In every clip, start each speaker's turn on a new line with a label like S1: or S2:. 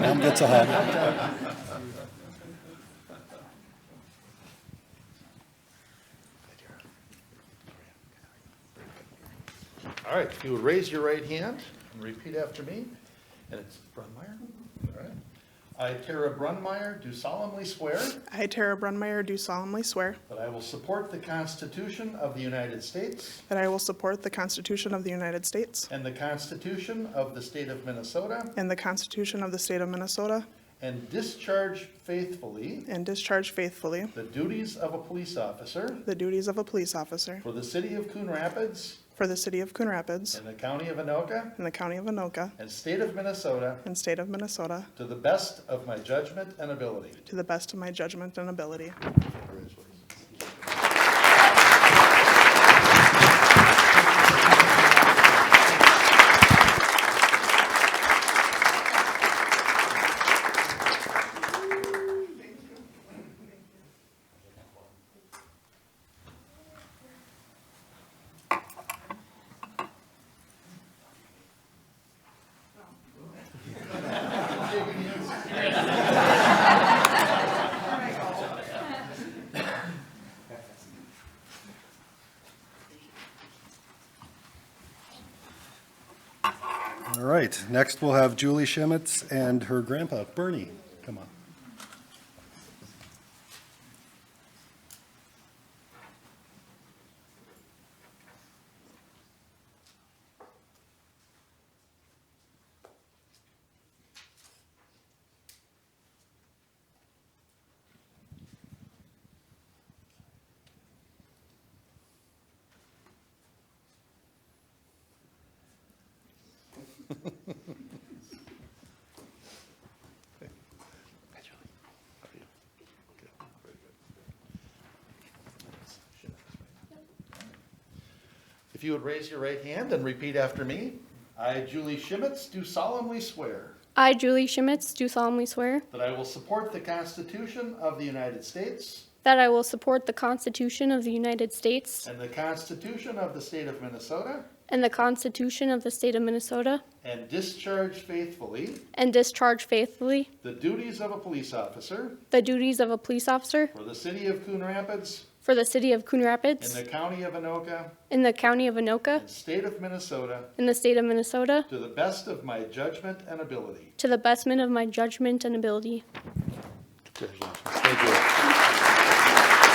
S1: Mom gets a hug.
S2: All right, if you would raise your right hand and repeat after me, and it's Brunmeyer? All right. I, Tara Brunmeyer, do solemnly swear
S3: I, Tara Brunmeyer, do solemnly swear
S2: that I will support the Constitution of the United States
S3: that I will support the Constitution of the United States
S2: and the Constitution of the State of Minnesota,
S3: and the Constitution of the State of Minnesota
S2: and discharge faithfully
S3: and discharge faithfully
S2: the duties of a police officer
S3: the duties of a police officer
S2: for the city of Coon Rapids
S3: for the City of Coon Rapids
S2: and the county of Anoka
S3: and the County of Anoka
S2: and state of Minnesota
S3: and State of Minnesota
S2: to the best of my judgment and ability.
S3: to the best of my judgment and ability.
S2: Congratulations.
S1: All right, next we'll have Julie Shemitz and her grandpa, Bernie, come on.
S2: If you would raise your right hand and repeat after me. I, Julie Shimitz, do solemnly swear
S4: I, Julie Shimitz, do solemnly swear
S2: that I will support the Constitution of the United States
S4: that I will support the Constitution of the United States
S2: and the Constitution of the State of Minnesota
S4: and the Constitution of the State of Minnesota
S2: and discharge faithfully
S4: and discharge faithfully
S2: the duties of a police officer
S4: the duties of a police officer
S2: for the city of Coon Rapids
S4: for the City of Coon
S2: and
S4: Rapids
S2: the county of Anoka
S4: in the County of Anoka
S2: and state of Minnesota
S4: in the State of Minnesota
S2: to the best of my judgment and ability.
S4: to the bestment of my judgment and ability.
S2: Congratulations. Thank you.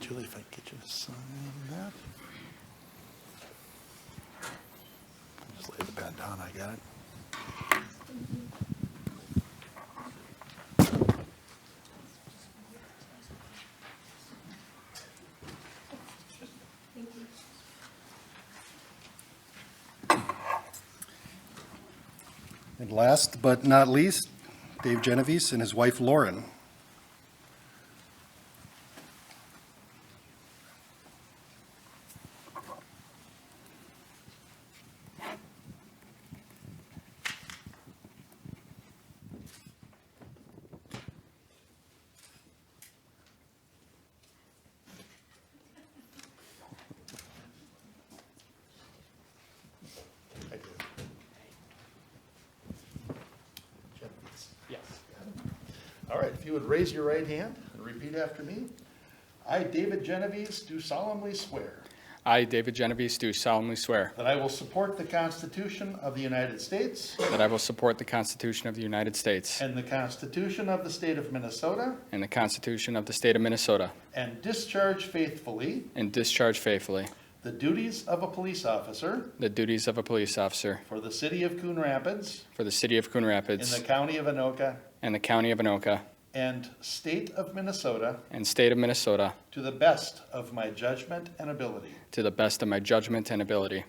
S2: Julie, if I could get you to sign that. Just lay the pen down, I got it.
S1: And last but not least, Dave Genovese and his wife Lauren.
S2: I do. Yes. All right, if you would raise your right hand and repeat after me. I, David Genovese, do solemnly swear
S5: I, David Genovese, do solemnly swear
S2: that I will support the Constitution of the United States
S5: that I will support the Constitution of the United States
S2: and the Constitution of the State of Minnesota
S5: and the Constitution of the State of Minnesota,
S2: and discharge faithfully
S5: and discharge faithfully
S2: the duties of a police officer
S5: the duties of a police officer
S2: for the City of Coon Rapids
S5: for the City of Coon
S2: in the
S5: Rapids
S2: County of Anoka
S5: and the County of Anoka
S2: and State of Minnesota
S5: and State of Minnesota
S2: to the best of my judgment and ability.
S5: to the best of my judgment and ability.